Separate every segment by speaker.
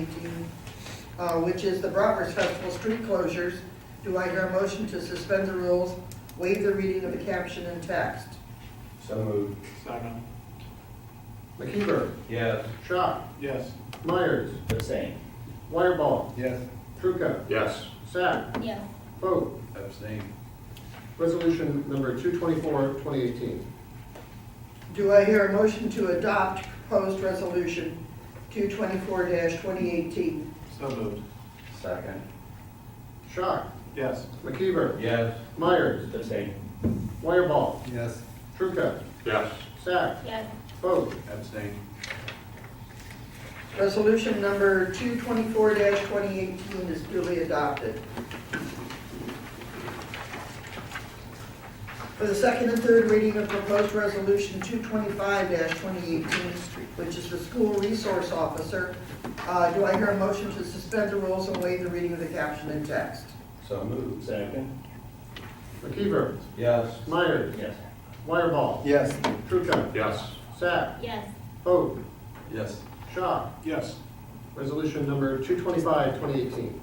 Speaker 1: 2018, uh, which is the Brockers Festival street closures. Do I hear a motion to suspend the rules, waive the reading of the caption and text?
Speaker 2: So moved.
Speaker 3: Second.
Speaker 4: McKeever,
Speaker 2: Yes.
Speaker 4: Schott,
Speaker 3: Yes.
Speaker 4: Myers,
Speaker 2: Abstain.
Speaker 4: Wireball,
Speaker 3: Yes.
Speaker 4: Trucca,
Speaker 2: Yes.
Speaker 4: Sack,
Speaker 5: yes,
Speaker 4: Foote.
Speaker 2: Abstain.
Speaker 4: Resolution number 224, 2018.
Speaker 1: Do I hear a motion to adopt proposed resolution 224-2018?
Speaker 3: So moved.
Speaker 2: Second.
Speaker 4: Schott,
Speaker 3: Yes.
Speaker 4: McKeever,
Speaker 2: Yes.
Speaker 4: Myers,
Speaker 2: Abstain.
Speaker 4: Wireball,
Speaker 3: Yes.
Speaker 4: Trucca,
Speaker 2: Yes.
Speaker 4: Sack,
Speaker 5: yes,
Speaker 4: Foote.
Speaker 3: Abstain.
Speaker 1: Resolution number 224-2018 is duly adopted. For the second and third reading of proposed resolution 225-2018, which is the school resource officer, uh, do I hear a motion to suspend the rules and waive the reading of the caption and text?
Speaker 2: So moved. Second.
Speaker 4: McKeever,
Speaker 2: Yes.
Speaker 4: Myers,
Speaker 2: Yes.
Speaker 4: Wireball,
Speaker 3: Yes.
Speaker 4: Trucca,
Speaker 2: Yes.
Speaker 4: Sack,
Speaker 5: yes,
Speaker 4: Foote,
Speaker 2: Yes.
Speaker 4: Schott.
Speaker 3: Yes.
Speaker 4: Resolution number 225, 2018.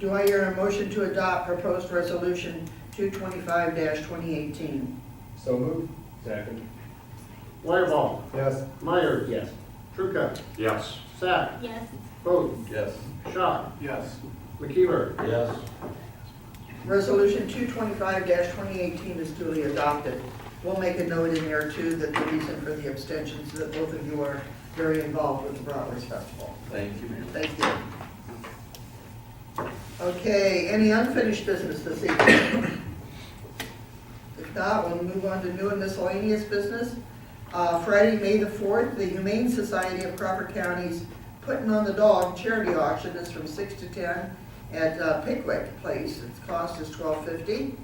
Speaker 1: Do I hear a motion to adopt proposed resolution 225-2018?
Speaker 2: So moved. Second.
Speaker 4: Wireball,
Speaker 3: Yes.
Speaker 4: Myers,
Speaker 2: Yes.
Speaker 4: Trucca,
Speaker 2: Yes.
Speaker 4: Sack,
Speaker 5: yes,
Speaker 4: Foote,
Speaker 2: Yes.
Speaker 4: Schott,
Speaker 3: Yes.
Speaker 4: McKeever,
Speaker 2: Yes.
Speaker 1: Resolution 225-2018 is duly adopted. We'll make a note in there too that the reason for the abstentions, that both of you are very involved with the Broadway Festival.
Speaker 2: Thank you.
Speaker 1: Thank you. Okay, any unfinished business this evening? If not, we'll move on to new and miscellaneous business. Uh, Friday, May the 4th, the Humane Society of Crawford County's Putting on the Dog charity auction is from 6 to 10 at uh, Pickwick Place. Its cost is $12.50.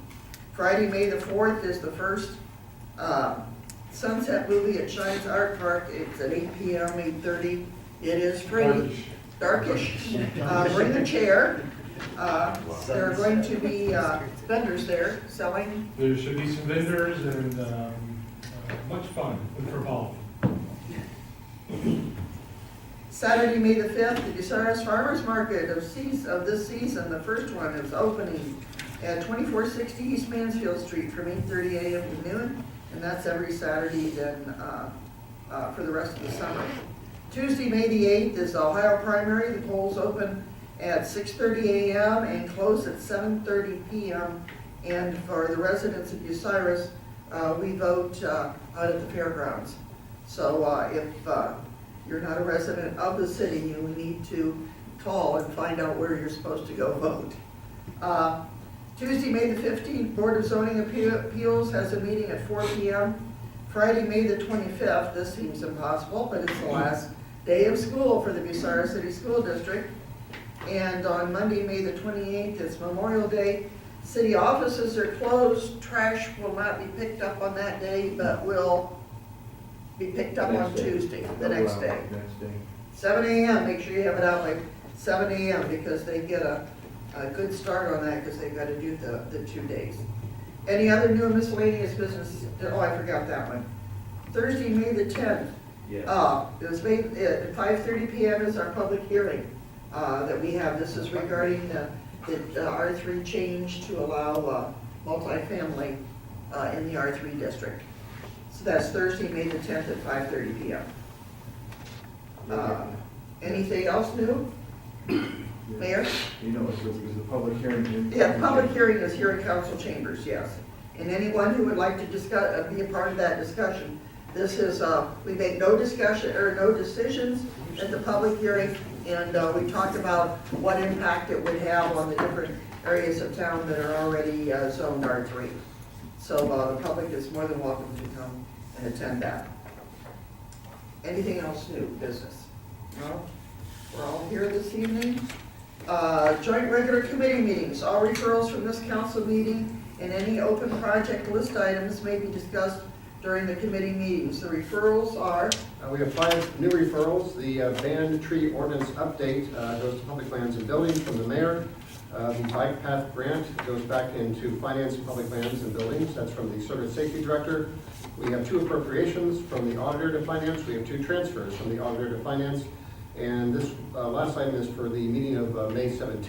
Speaker 1: Friday, May the 4th is the first uh, Sunset movie at Shines Art Park. It's at 8 PM, 8:30. It is free darkish. Uh, Bring a chair. Uh, There are going to be uh, vendors there selling.
Speaker 6: There should be some vendors and um, uh, much fun for all.
Speaker 1: Saturday, May the 5th, the Bucyrus Farmers Market of seas of this season, the first one is opening at 2460 East Mansfield Street from 8:30 a.m. to noon, and that's every Saturday then uh, uh, for the rest of the summer. Tuesday, May the 8th is the Ohio primary. The polls open at 6:30 a.m. and close at 7:30 p.m. And for the residents of Bucyrus, uh, we vote uh, out at the fairgrounds. So uh, if uh, you're not a resident of the city, you need to call and find out where you're supposed to go vote. Uh, Tuesday, May the 15th, Board of Zoning Appeal- Appeals has a meeting at 4 PM. Friday, May the 25th, this seems impossible, but it's the last day of school for the Bucyrus City School District. And on Monday, May the 28th, it's Memorial Day. City offices are closed, trash will not be picked up on that day, but will be picked up on
Speaker 2: Next day.
Speaker 1: Tuesday, the next day.
Speaker 2: Next day.
Speaker 1: Seven AM, make sure you have it out by seven AM, because they get a, a good start on that, because they've got to do the, the two days. Any other new and miscellaneous business? Oh, I forgot that one. Thursday, May the tenth,
Speaker 2: Yes.
Speaker 1: uh, it was made, at five thirty PM is our public hearing, uh, that we have. This is regarding the, the R three change to allow, uh, multifamily, uh, in the R three district. So that's Thursday, May the tenth at five thirty PM. Uh, Anything else new? Mayor?
Speaker 7: You know, it's, it's a public hearing.
Speaker 1: Yeah, public hearing is here in council chambers, yes. And anyone who would like to discuss, uh, be a part of that discussion, this is, uh, we make no discussion, or no decisions at the public hearing, and uh, we talked about what impact it would have on the different areas of town that are already uh, zoned R3. So uh, the public is more than welcome to come and attend that. Anything else new, business? No? We're all here this evening. Uh, Joint regular committee meetings, all referrals from this council meeting and any open project list items may be discussed during the committee meetings. The referrals are,
Speaker 4: Uh, We have five new referrals. The uh, banned tree ordinance update uh, goes to public lands and buildings from the mayor. Uh, The Bike path grant goes back into finance and public lands and buildings. That's from the service safety director. We have two appropriations from the auditor to finance. We have two transfers from the auditor to finance. And this uh, last item is for the meeting of uh, May 17th.